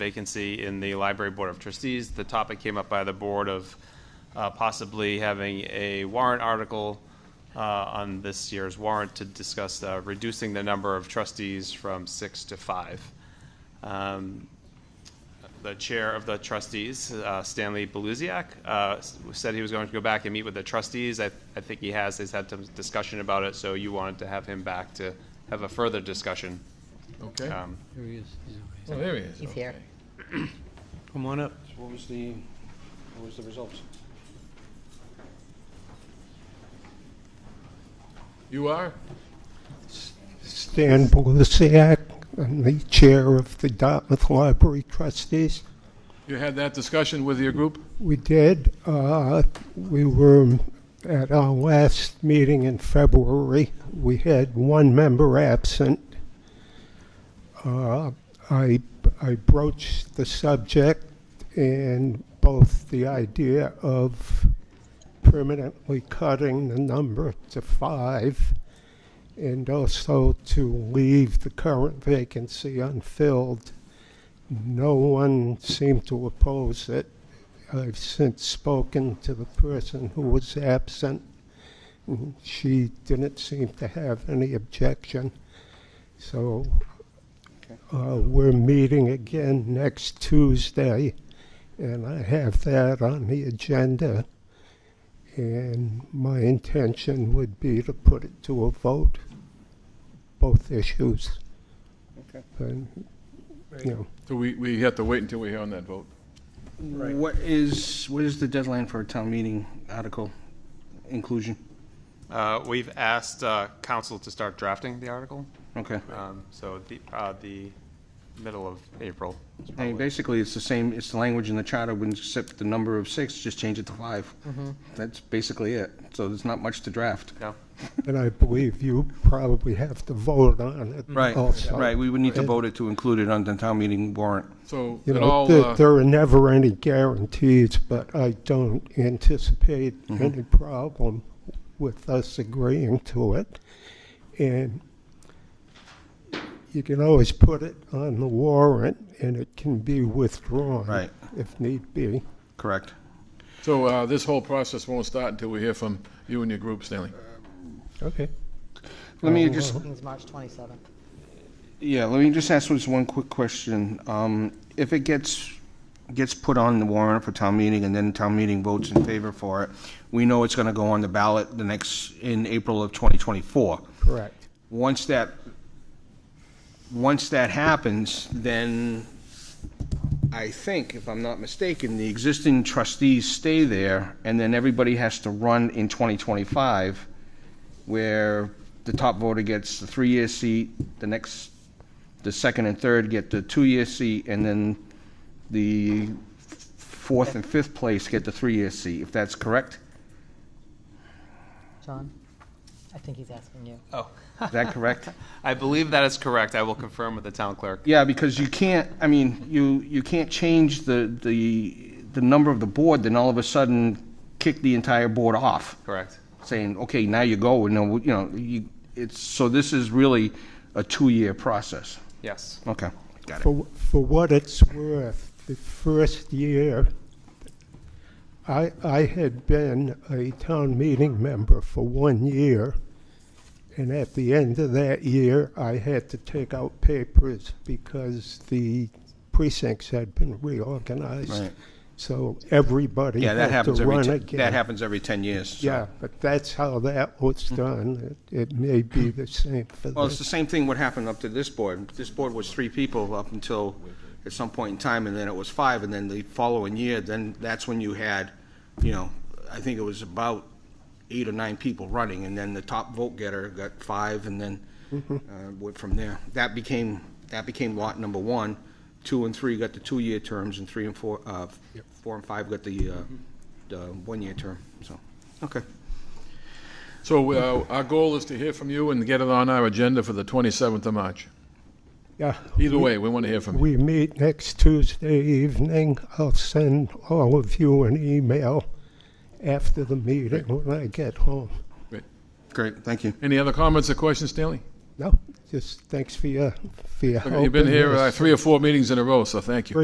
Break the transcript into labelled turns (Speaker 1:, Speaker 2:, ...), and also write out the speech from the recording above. Speaker 1: vacancy in the Library Board of Trustees. The topic came up by the board of uh, possibly having a warrant article uh, on this year's warrant to discuss uh, reducing the number of trustees from six to five. Um, the chair of the trustees, uh, Stanley Beluziak, uh, s- said he was going to go back and meet with the trustees. I, I think he has, he's had some discussion about it, so you wanted to have him back to have a further discussion.
Speaker 2: Okay.
Speaker 1: Um,
Speaker 3: Here he is. He's over
Speaker 2: Oh, there he is.
Speaker 4: He's here.
Speaker 2: Okay.
Speaker 3: here. Come on up.
Speaker 5: So What was the, what was the results?
Speaker 2: You are?
Speaker 6: Stan Belusiak, I'm the chair of the Dartmouth Library Trustees.
Speaker 2: You had that discussion with your group?
Speaker 6: We did, uh, we were at our last meeting in February. We had one member absent. Uh, I, I broached the subject and both the idea of permanently cutting the number to five and also to leave the current vacancy unfilled. No one seemed to oppose it. I've since spoken to the person who was absent. and She didn't seem to have any objection. So uh, we're meeting again next Tuesday, and I have that on the agenda. And my intention would be to put it to a vote, both issues.
Speaker 5: Okay.
Speaker 6: And, you know,
Speaker 2: So we, we have to wait until we hear on that vote.
Speaker 5: What is, what is the deadline for a town meeting article inclusion?
Speaker 1: uh, We've asked uh, council to start drafting the article,
Speaker 5: Okay.
Speaker 1: um, so the, uh, the middle of April.
Speaker 5: I mean, basically, it's the same, it's the language in the charter, wouldn't accept the number of six, just change it to five. That's basically it. So there's not much to draft.
Speaker 1: No?
Speaker 6: And I believe you probably have to vote on it also.
Speaker 5: Right, we would need to
Speaker 6: Oh, Right.
Speaker 5: vote it to include it on the town meeting warrant.
Speaker 2: So
Speaker 6: You
Speaker 2: it
Speaker 6: know,
Speaker 2: all,
Speaker 6: there,
Speaker 2: uh,
Speaker 6: there are never any guarantees, but I don't anticipate
Speaker 5: Mm-hmm.
Speaker 6: any problem with us agreeing to it. And you can always put it on the warrant and it can be withdrawn.
Speaker 5: Right.
Speaker 6: If need be.
Speaker 5: Correct.
Speaker 2: so uh, this whole process won't start until we hear from you and your group, Stanley.
Speaker 6: Okay.
Speaker 5: Let me just,
Speaker 4: Meeting's March 27th.
Speaker 5: Yeah, let me just ask this one quick question. Um, If it gets, gets put on the warrant for town meeting and then town meeting votes in favor for it, we know it's gonna go on the ballot the next, in April of 2024.
Speaker 6: Correct.
Speaker 5: Once that, once that happens, then I think, if I'm not mistaken, the existing trustees stay there and then everybody has to run in 2025 where the top voter gets the three-year seat, the next, the second and third get the two-year seat, and then the fourth and fifth place get the three-year seat, if that's correct?
Speaker 4: John, I think he's asking you.
Speaker 1: Oh.
Speaker 5: Is that correct?
Speaker 1: I believe that is correct. I will confirm with the town clerk.
Speaker 5: Yeah, because you can't, I mean, you, you can't change the, the, the number of the board, then all of a sudden kick the entire board off.
Speaker 1: Correct.
Speaker 5: saying, okay, now you go, and then, you know, you, it's, so this is really a two-year process.
Speaker 1: Yes.
Speaker 5: Okay, got it.
Speaker 6: For, for what it's worth, the first year, I, I had been a town meeting member for one year. And at the end of that year, I had to take out papers because the precincts had been reorganized.
Speaker 5: Right.
Speaker 6: So everybody
Speaker 5: Yeah, that
Speaker 6: had to
Speaker 5: happens every,
Speaker 6: run
Speaker 5: te-
Speaker 6: again.
Speaker 5: that happens every 10 years. so.
Speaker 6: Yeah, but that's how that was done. It, it may be the same for
Speaker 5: Well, it's
Speaker 6: this.
Speaker 5: the same thing what happened up to this board. This board was three people up until, at some point in time, and then it was five, and then the following year, then that's when you had, you know, I think it was about eight or nine people running, and then the top vote getter got five, and then, uh, went from there. That became, that became lot number one. Two and three got the two-year terms, and three and four, uh, four and five got the, uh, the one-year term, so, okay.
Speaker 2: So uh, our goal is to hear from you and get it on our agenda for the 27th of March.
Speaker 6: Yeah.
Speaker 2: Either way, we want to hear from you.
Speaker 6: We meet next Tuesday evening. I'll send all of you an email after the meeting when I get home.
Speaker 5: Great, thank you.
Speaker 2: Any other comments or questions, Stanley?
Speaker 6: No, just thanks for your, for your
Speaker 2: Look,
Speaker 6: help.
Speaker 2: You've been
Speaker 6: in
Speaker 2: here uh,
Speaker 6: this.
Speaker 2: three or four meetings in a row, so thank you.